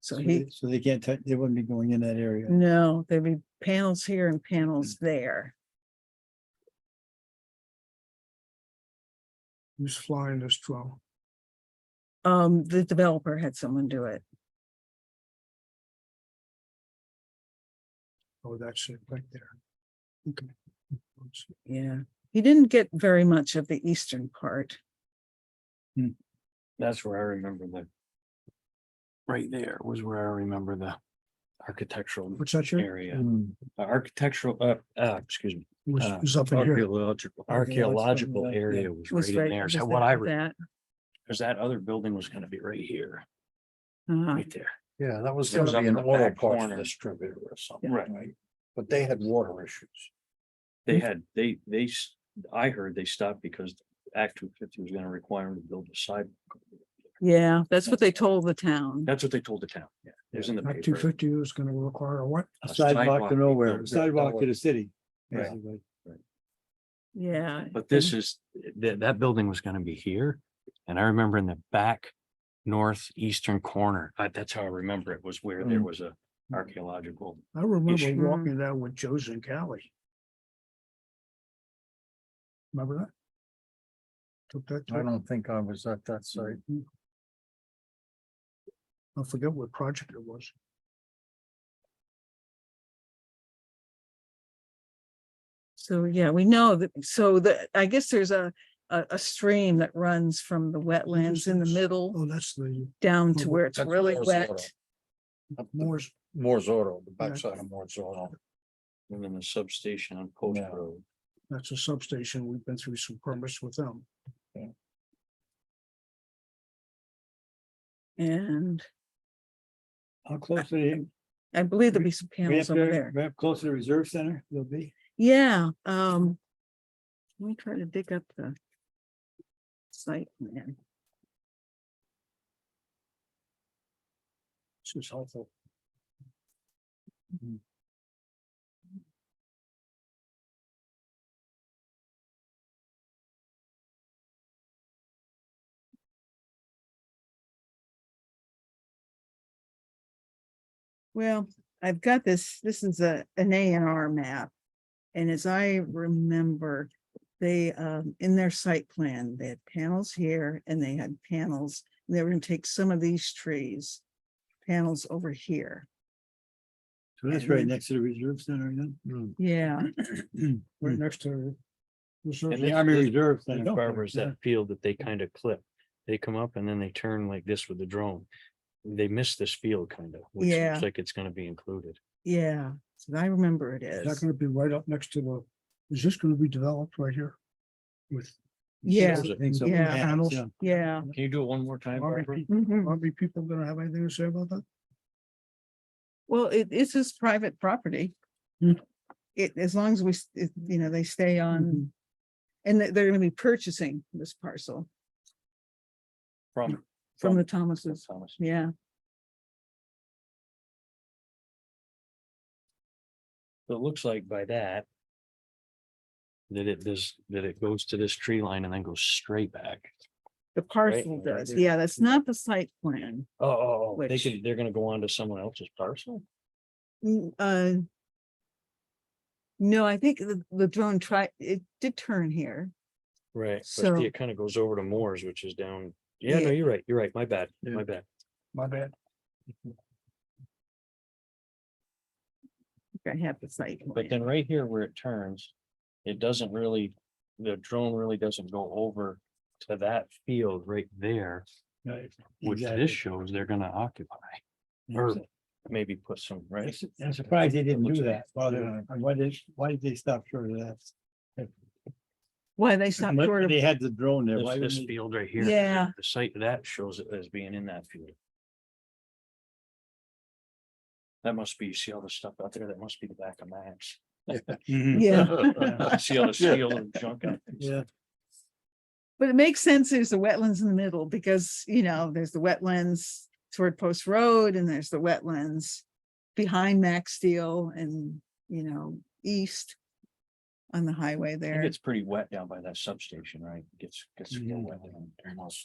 So he, So they can't, touch- they wouldn't be going in that area. no, there'd be panels here and panels Hmm. there. Who's flying this drone? Um, the developer had someone do it. Oh, that's it right there. Okay. Oops. Yeah. He didn't get very much of the eastern part. That's where I remember the. Right there was where I remember the architectural What's that here? area, uh, architectural, uh, uh, excuse me. Was, Uh, was up in here. Archaeological. Archaeological area was Was right right. in there. was So that- what I, That, because that other building was gonna be right here, uh, right there. Yeah, that was It was gonna be up in an the oil back parts corner. distributor or something, Right. right? But they had water issues. They had, they, they, s- I heard they stopped because Act two fifty was gonna require them to build a sidewalk. yeah, that's what they told the town. That's what they told the town. Yeah, it was in the Act two paper. fifty is gonna require a what? A Sidewalk to be nowhere. built. Sidewalk to the city. Yeah. basically. Yeah. But this is, that, that building was gonna be here, and I remember in the back northeastern corner, I, that's how I remember it, was where there Mm. was a archaeological. I remember Issue. walking down with Joe Zincali. Remember that? Took that, I time. don't think I was at Hmm. that site. I forget what project it was. So, yeah, we know that, so the, I guess there's a, a, a stream that runs from the wetlands in the Yes. middle Oh, that's the down Oh, to where it's that's really Moore's wet. Law. Up the- Moore's, Moore's Auto, the Yeah. backside of Moore's Auto. And then the substation on Post Yeah. Road. that's a substation. We've been through some permits with them. And How close to the, I believe there'll be some panels over there. close to the Reserve Center, they'll be? Yeah, um. Let me try to dig up the. Site plan. This is helpful. Well, I've got this, this is a, an A and R map. And as I remember, they, um, in their site plan, they had panels here and they had panels. and They were gonna take some of these trees, panels over here. So that's right next to the Reserve Center then? Hmm. Yeah. Right next to. Reserve. And the Army Reserve Center. Barbara is that field that they kind of clip. They come up and then they turn like this with the drone. They miss this field kind of, which Yeah. looks like it's gonna be included. Yeah, so I remember it Is that is. gonna be right up next to the, is this gonna be developed right here? With. Yeah, Those are- yeah. Panels. yeah. Can you do it one more time? Army Barbara? people- Mhm. Army people gonna have anything to say about that? Well, it, it's his private property. Hmm. It, as long as we, s- it- you know, they stay on. Mm-hmm. And they- they're gonna be purchasing this parcel From. from the Thomases. Thomas. Yeah. So It looks like by that. That it does, that it goes to this tree line and then goes straight back. The parcel Right does, there. yeah, that's not the site plan. Oh, oh, oh, they Which- could, they're gonna go on to someone else's parcel? Mm, uh, No, I think the, the drone tried, it did turn here. Right. So- It kind of goes over to Moore's, which is down. Yeah, Yeah. no, you're right. You're right. My bad. Yeah. My bad. My bad. I have the site. But then right here where it turns, it doesn't really, the drone really doesn't go over to that field right there, which this shows they're gonna occupy. Or maybe put some, right? I'm surprised they didn't do that. Why did, why did they stop short of that? Why they stopped short of, had the drone there. This, this field right here. Yeah. The site of that shows it as being in that field. That must be, you see all the stuff out there? That must be the back of Max. Mm-hmm. yeah, See all the steel and junk out there? Yeah. but it makes sense, there's the wetlands in the middle, because, you know, there's the wetlands toward Post Road, and there's the wetlands behind Max Steel and, you know, east on the highway It there. gets pretty wet down by that substation, right? Gets, gets real Mhm. wet down there. Almost